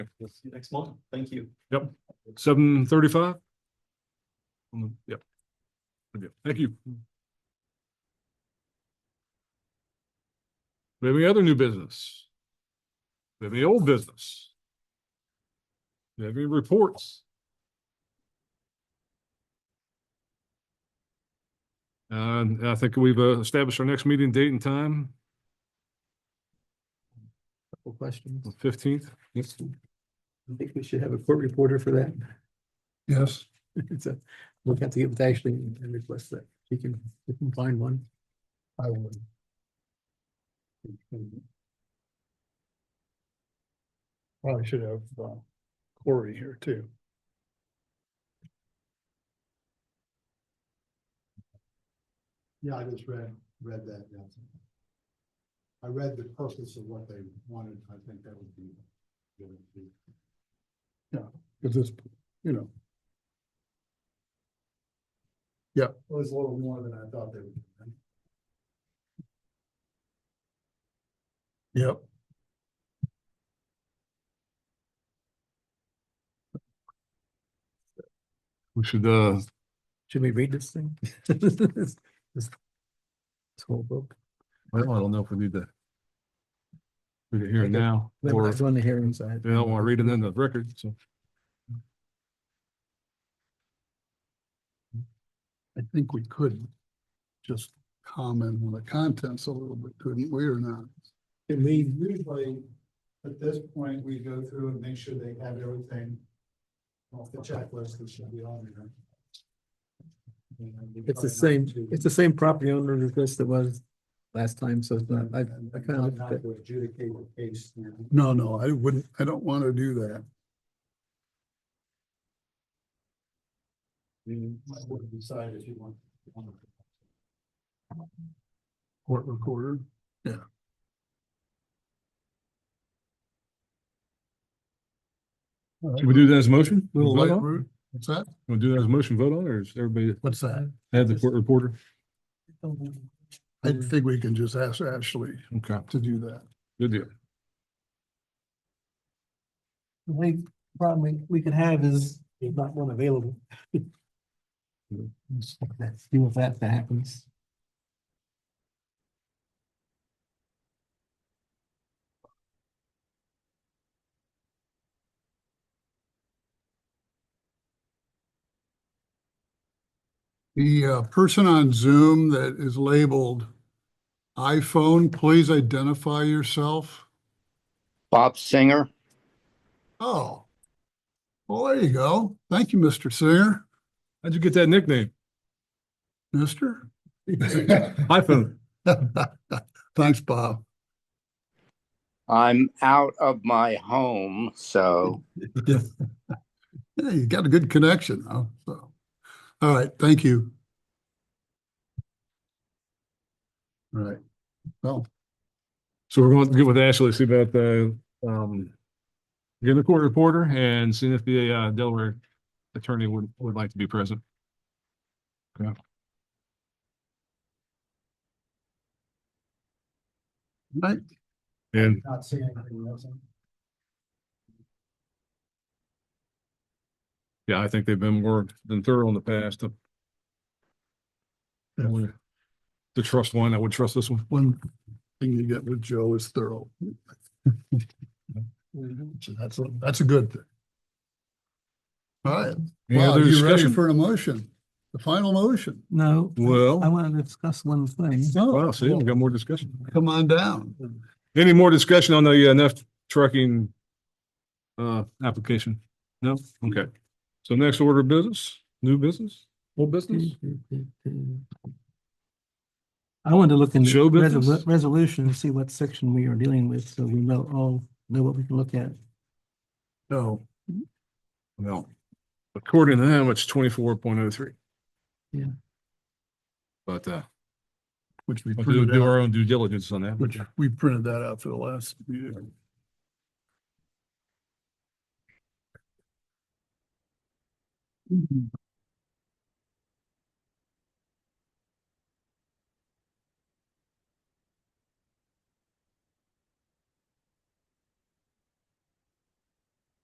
We'll see you next month. Thank you. seven thirty-five? Yep. Okay, Thank you. We have any other new business? We have any old business? We have any reports? And I think we've uh, established our next meeting date and time, Couple questions. fifteenth. I think we should have a court reporter for that. Yes. So we'll have to get with Ashley and request that she can, we can find one. I would. Probably should have uh, Corey here too. Yeah, I just read, read that, yeah. I read the purpose of what they wanted, I think that would be. that would be- Cause this, you know, It was a little more than I thought they would. do. yep. We should, uh, Should we read this thing? This this whole book. well, I don't know if we need to. Read it here and Okay. now, or That's on the hearing side. they don't want to read it in the record, so. I think we could just comment on the contents a little bit, couldn't we or not? And we usually, at this point, we go through and make sure they have everything off the checklist that should be on there. And we It's the try not same, to- it's the same property owner as this that was last time, so it's not, I, I kind of Not looked at, to adjudicate the case. you know. No, no, I wouldn't, I don't want to do that. You might want to decide if you want. you want to- Court recorder. Should we do that as a motion? Little Vote light on? route. What's that? Wanna do that as a motion vote on, or is everybody What's that? have the court reporter? I think we can just ask Ashley Okay, to do that. good deal. The only problem we, we could have is there's not one available. Let's See if that happens. The uh, person on Zoom that is labeled iPhone, please identify yourself. Bob Singer. Oh. Well, there you go. Thank you, Mr. Singer. How'd you get that nickname? Mister? iPhone. Thanks, Bob. I'm out of my home, so Yeah, you got a good connection, though, so. All right, thank you. All right. Well, So we're going to get with Ashley, see about the, um, getting the court reporter and seeing if the, uh, Delaware attorney would, would like to be present. Okay. Right. And Not seeing anything else. Yeah, I think they've been more than thorough in the past. to- Yeah. Only To trust one, I would trust this one. one thing you get with Joe is thorough. So that's, a- that's a good thing. All right. Any Well, other you ready discussion? for a motion? The final motion? No, I Well, want to discuss one thing. Oh, wow, see, we got more discussion. Come on down. Any more discussion on the uh, NF trucking uh, application? No? Okay. So next order of business, new business, old business? I wanted to look in the Show resolu- business? resolution and see what section we are dealing with, so we know, all know what we can look at. No. No. According to them, it's twenty-four point oh three. Yeah. But uh, Which we we'll do printed do out, our own due diligence on that. which we printed that out for the last meeting.